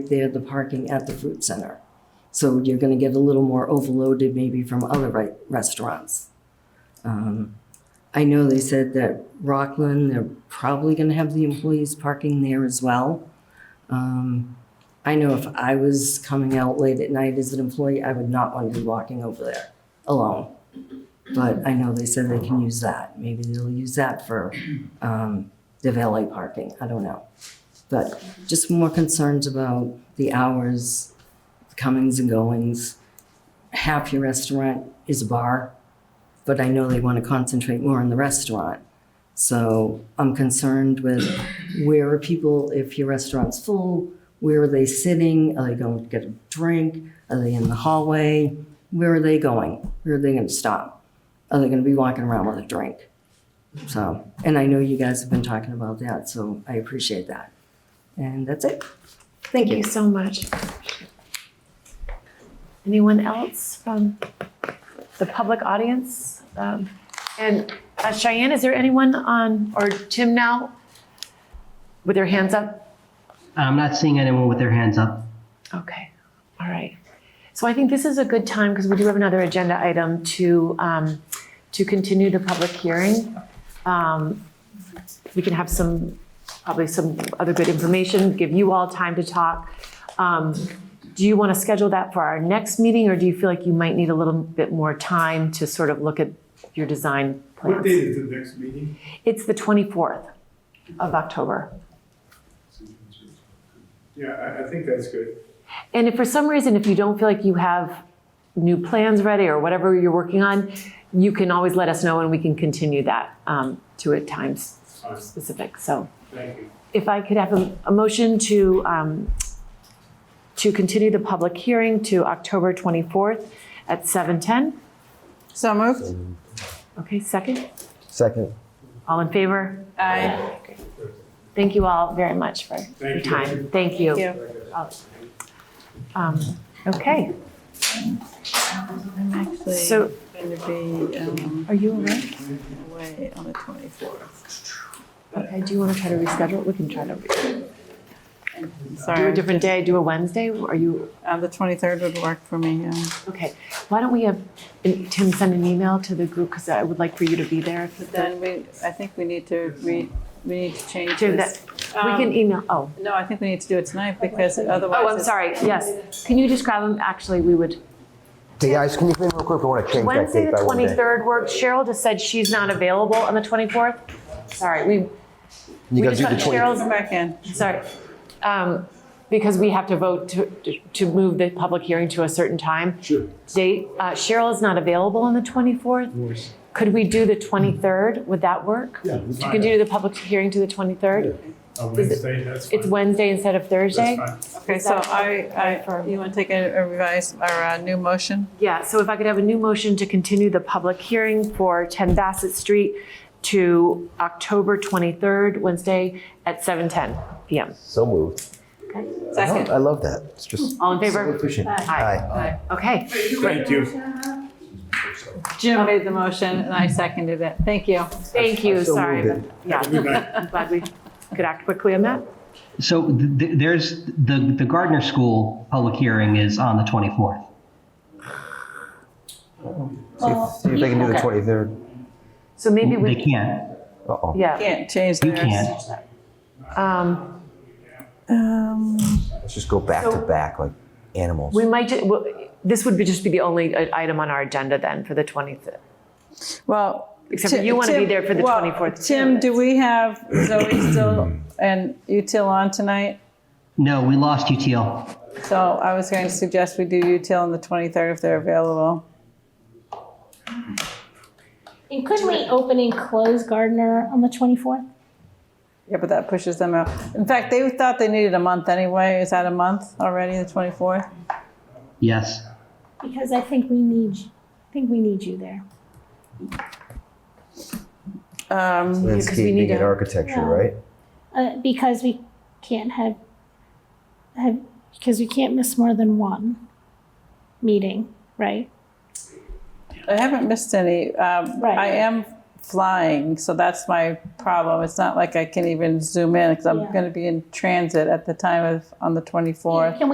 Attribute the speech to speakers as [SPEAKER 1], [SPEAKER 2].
[SPEAKER 1] there the parking at the food center. So you're going to get a little more overloaded maybe from other ri- restaurants. Um, I know they said that Rockland, they're probably going to have the employees parking there as well. Um, I know if I was coming out late at night as an employee, I would not want to be walking over there alone. But I know they said they can use that. Maybe they'll use that for um, the valet parking. I don't know. But just more concerns about the hours, the comings and goings. Half your restaurant is a bar, but I know they want to concentrate more on the restaurant. So I'm concerned with where are people, if your restaurant's full, where are they sitting? Are they going to get a drink? Are they in the hallway? Where are they going? Where are they going to stop? Are they going to be walking around with a drink? So, and I know you guys have been talking about that, so I appreciate that. And that's it.
[SPEAKER 2] Thank you so much. Anyone else from the public audience? Um, And uh, Cheyenne, is there anyone on, or Tim now, with their hands up?
[SPEAKER 3] I'm not seeing anyone with their hands up.
[SPEAKER 2] Okay, all right. So I think this is a good time, because we do have another agenda item to, um, to continue the public hearing. Um, We can have some, probably some other good information, give you all time to talk. Um, Do you want to schedule that for our next meeting, or do you feel like you might need a little bit more time to sort of look at your design
[SPEAKER 4] What date
[SPEAKER 2] plans?
[SPEAKER 4] is the next meeting?
[SPEAKER 2] It's the 24th of October.
[SPEAKER 4] Yeah, I, I think that's good.
[SPEAKER 2] And if for some reason, if you don't feel like you have new plans ready or whatever you're working on, you can always let us know and we can continue that um, to a time s-
[SPEAKER 4] Fine.
[SPEAKER 2] specific. So
[SPEAKER 4] Thank you.
[SPEAKER 2] if I could have a, a motion to, um, to continue the public hearing to October 24th at 7:10.
[SPEAKER 5] So moved.
[SPEAKER 2] Okay, second.
[SPEAKER 6] Second.
[SPEAKER 2] All in favor?
[SPEAKER 5] Aye.
[SPEAKER 2] Thank you all very much for your
[SPEAKER 4] Thank you.
[SPEAKER 2] time. Thank you.
[SPEAKER 5] you.
[SPEAKER 2] Um, Okay,
[SPEAKER 5] I'm actually
[SPEAKER 2] so
[SPEAKER 5] going to be um,
[SPEAKER 2] are you all right?
[SPEAKER 5] away on the 24th.
[SPEAKER 2] Okay, do you want to try to reschedule? We can try to do a
[SPEAKER 5] Sorry,
[SPEAKER 2] different day, do a Wednesday, are you,
[SPEAKER 5] uh, the 23rd would work for me. Yeah.
[SPEAKER 2] okay. Why don't we have Tim send an email to the group, because I would like for you to be there. if-
[SPEAKER 5] But then we, I think we need to re, we need to change
[SPEAKER 2] Do
[SPEAKER 5] this.
[SPEAKER 2] We can
[SPEAKER 5] Um,
[SPEAKER 2] email, oh,
[SPEAKER 5] No, I think we need to do it tonight because otherwise.
[SPEAKER 2] oh, I'm
[SPEAKER 5] it's-
[SPEAKER 2] sorry, yes. Can you just grab them, actually, we would,
[SPEAKER 6] Hey guys, can you come in real quick? I want to change that
[SPEAKER 2] Wednesday,
[SPEAKER 6] date
[SPEAKER 2] the
[SPEAKER 6] by one day.
[SPEAKER 2] 23rd works. Cheryl just said she's not available on the 24th. Sorry, we,
[SPEAKER 6] You
[SPEAKER 2] we
[SPEAKER 6] guys
[SPEAKER 2] just
[SPEAKER 6] do
[SPEAKER 2] got
[SPEAKER 6] the 20th.
[SPEAKER 5] Come
[SPEAKER 2] Cheryl's,
[SPEAKER 5] back in.
[SPEAKER 2] sorry. Um, Because we have to vote to, to- to move the public hearing to a certain time.
[SPEAKER 4] Sure.
[SPEAKER 2] date. Uh, Cheryl is not available on the 24th. Could we do the 23rd? Would that work?
[SPEAKER 4] Yeah.
[SPEAKER 2] To continue the public hearing to the 23rd?
[SPEAKER 4] On Wednesday, that's fine.
[SPEAKER 2] It's Wednesday instead of Thursday?
[SPEAKER 4] That's fine.
[SPEAKER 5] Okay,
[SPEAKER 2] Is
[SPEAKER 5] so
[SPEAKER 2] that-
[SPEAKER 5] I, I,
[SPEAKER 2] for-
[SPEAKER 5] you want to take a a revise, or a new motion?
[SPEAKER 2] Yeah, so if I could have a new motion to continue the public hearing for 10 Bassett Street to October 23rd, Wednesday at 7:10 PM.
[SPEAKER 6] So moved.
[SPEAKER 5] Second.
[SPEAKER 6] I love that. It's just
[SPEAKER 2] All in
[SPEAKER 6] so
[SPEAKER 2] favor?
[SPEAKER 6] efficient.
[SPEAKER 2] Aye.
[SPEAKER 6] Aye.
[SPEAKER 2] Okay,
[SPEAKER 4] Thank you.
[SPEAKER 5] Jim made the motion and I seconded it. Thank you.
[SPEAKER 2] thank you,
[SPEAKER 6] I so
[SPEAKER 2] sorry.
[SPEAKER 6] moved
[SPEAKER 2] but- Yeah,
[SPEAKER 4] Good night.
[SPEAKER 2] I'm glad we could act quickly on that.
[SPEAKER 3] So th- th- there's the the Gardner School public hearing is on the 24th.
[SPEAKER 6] See if, see if they can do the
[SPEAKER 2] Oh, Okay.
[SPEAKER 6] 23rd.
[SPEAKER 2] So maybe
[SPEAKER 3] They
[SPEAKER 2] we,
[SPEAKER 3] can't.
[SPEAKER 6] Uh oh.
[SPEAKER 2] yeah.
[SPEAKER 5] Can't change
[SPEAKER 3] You
[SPEAKER 5] theirs.
[SPEAKER 3] can't.
[SPEAKER 2] Um,
[SPEAKER 5] Um,
[SPEAKER 6] Let's just go back to back like animals.
[SPEAKER 2] We might, ju- well, this would be, just be the only i- item on our agenda then for the 25th.
[SPEAKER 5] Well.
[SPEAKER 2] Except for
[SPEAKER 5] Ti-
[SPEAKER 2] you wanna be
[SPEAKER 5] Tim-
[SPEAKER 2] there for the
[SPEAKER 5] well,
[SPEAKER 2] 24th
[SPEAKER 5] Tim,
[SPEAKER 2] too.
[SPEAKER 5] do we have Zoe still and Util on tonight?
[SPEAKER 3] No, we lost UTL.
[SPEAKER 5] So I was going to suggest we do Util on the 23rd if they're available.
[SPEAKER 7] And couldn't we open and close Gardner on the 24th?
[SPEAKER 5] Yeah, but that pushes them out. In fact, they thought they needed a month anyway. Is that a month already, the 24th?
[SPEAKER 3] Yes.
[SPEAKER 7] Because I think we need, I think we need you there.
[SPEAKER 5] Um,
[SPEAKER 6] Landscaping
[SPEAKER 2] need
[SPEAKER 6] and
[SPEAKER 2] to-
[SPEAKER 6] architecture,
[SPEAKER 7] Yeah.
[SPEAKER 6] right?
[SPEAKER 7] Uh, because we can't have, have, because we can't miss more than one meeting, right?
[SPEAKER 5] I haven't missed any. Um,
[SPEAKER 7] Right.
[SPEAKER 5] I am flying, so that's my problem. It's not like I can even zoom in because I'm
[SPEAKER 7] Yeah.
[SPEAKER 5] going to be in transit at the time of on the 24th.
[SPEAKER 7] Can we